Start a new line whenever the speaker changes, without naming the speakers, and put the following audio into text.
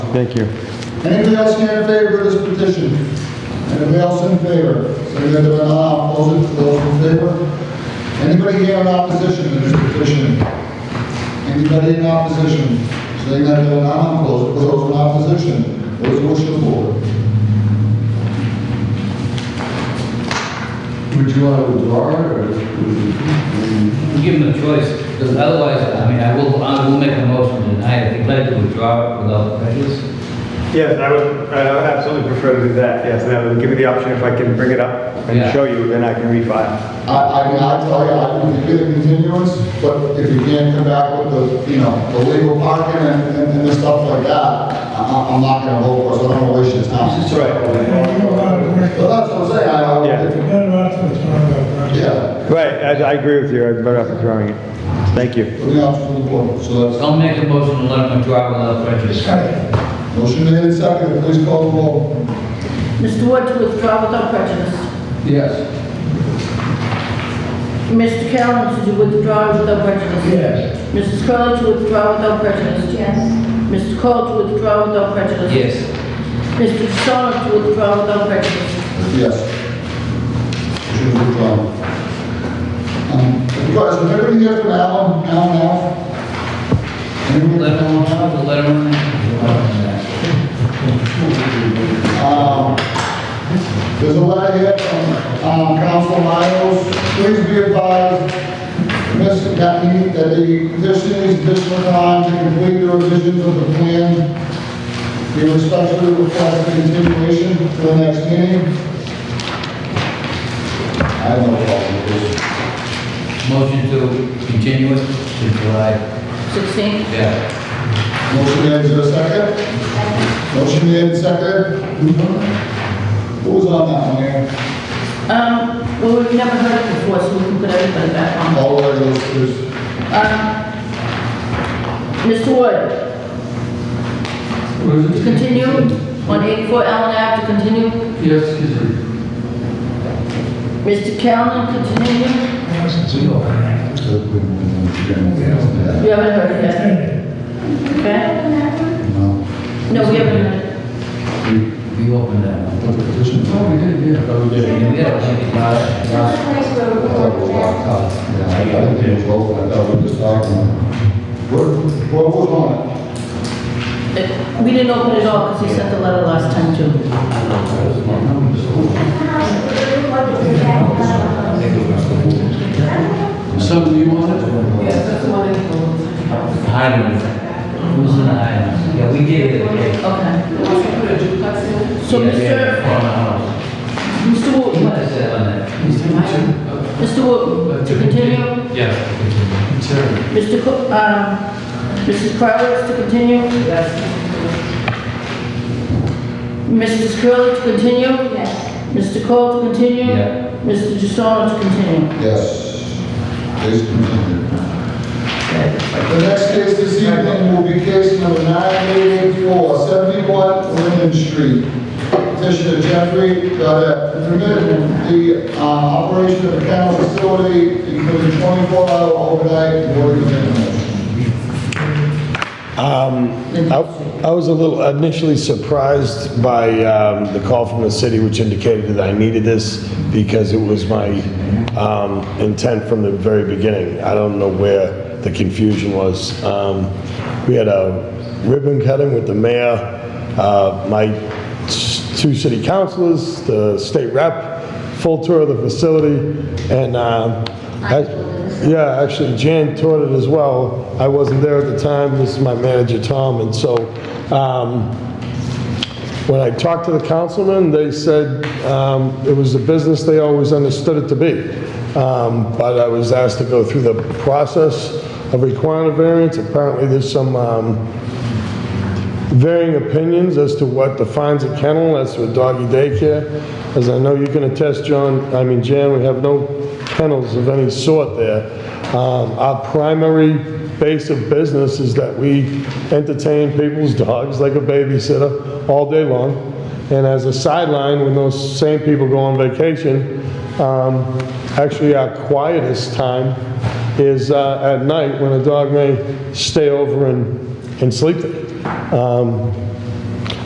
Thank you.
Anybody else here in favor of this petition? Anybody else in favor? Saying that there are none, I'll close it. Those in favor? Anybody here in opposition to this petition? Anybody in opposition? Saying that there are none, I'll close it. Those in opposition? What is the wish of the board?
Would you want to withdraw it, or? would
Give them a choice, because otherwise, I mean, I will, I will make a motion tonight, if you'd like to withdraw it without prejudice.
Yes, I would, I would absolutely prefer to do that, yes, and I would give you the option if I can bring it up and
Yeah.
show you, then I can refile.
I, I mean, I tell you, I can get a continuance, but if you can't come back with the, you know, the legal parking and, and- and the stuff like that, I- I, I'm not gonna vote for it, so I don't wanna waste your time.
That's right.
But that's what I'm saying, I, I,
Yeah.
yeah,
Right, I, I agree with you, I'm better off withdrawing it. Thank you.
put the option to the board, so that's,
I'll make a motion to let them withdraw it without prejudice.
motion made and seconded, please call the roll.
Mr. Wood to withdraw without prejudice.
Yes.
Mr. Callen to withdraw without prejudice.
Yes.
Mrs. Curley to withdraw without prejudice.
Yes.
Mr. Cole to withdraw without prejudice.
Yes.
Mr. Stoner to withdraw without prejudice.
Yes. Should have withdrawn. Um, Guys, is anybody here from Allen, Allen Ave? Anybody
Let
from
them,
Allen Ave?
let them. Let them-
Um, There's a letter here from um, Council Miles. Please be advised, Ms. Gattini, that the petition is additional time to complete the revisions of the plan. We respectfully request a continuation for the next meeting. I have no problem with this.
Motion to continue it to July,
16.
yeah.
Motion made, is there a second? Motion made, and seconded. Who was on that one here?
Um, well, we've never heard it before, so we can put everything back on.
All of those,
Um, Mr. Wood, to continue on 84 Allen Ave to continue.
Yes, excuse me.
Mr. Callen, continue.
Yeah.
We haven't heard it yet. Okay?
No.
No, we haven't heard it.
We opened that one.
What the petition? Oh, we did, yeah. Oh, we did.
And we had a link last, last,
I thought we were locked up. Yeah, I thought we were open, I thought we were just talking. What, what was on
It- We didn't open it all because he sent the letter last time too.
Something you wanted?
Yes, that's the one I told.
Hyden. Who's in the Hyden? Yeah, we gave it a day.
Okay. So
Yeah, we had
Mr.
it on the house.
Mr. Wood,
What is that on that?
Mr. Wood, to continue,
Yeah.
Terry.
Mr. Cook, um, Mrs. Crowder to continue. Yes. Mrs. Curley to continue,
Yes.
Mr. Cole to continue.
Yeah.
Mr. Jussono to continue.
it? Yes. Please continue. The next case this evening will be case number 9884, 71 Linden Street. Petitioner Jeffrey Gaudette, to permit the uh, operation of a kennel facility, including 24-hour overnight boarding and animals.
Um, I I was a little initially surprised by um, the call from the city, which indicated that I needed this because it was my um, intent from the very beginning. I don't know where the confusion was. Um, We had a ribbon cutting with the mayor, uh, my s- two city councilors, the state rep, full tour of the facility, and um, I- yeah, actually Jan toured it as well. I wasn't there at the time, this is my manager Tom, and so um, when I talked to the councilman, they said um, it was a business they always understood it to be. Um, But I was asked to go through the process of requiring a variance. Apparently, there's some um, varying opinions as to what defines a kennel, as to a doggy daycare. As I know you can attest, John, I mean, Jan, we have no kennels of any sort there. Um, Our primary base of business is that we entertain people's dogs like a babysitter all day long. And as a sideline, when those same people go on vacation, um, actually our quietest time is uh, at night when a dog may stay over and, and sleep there. Um,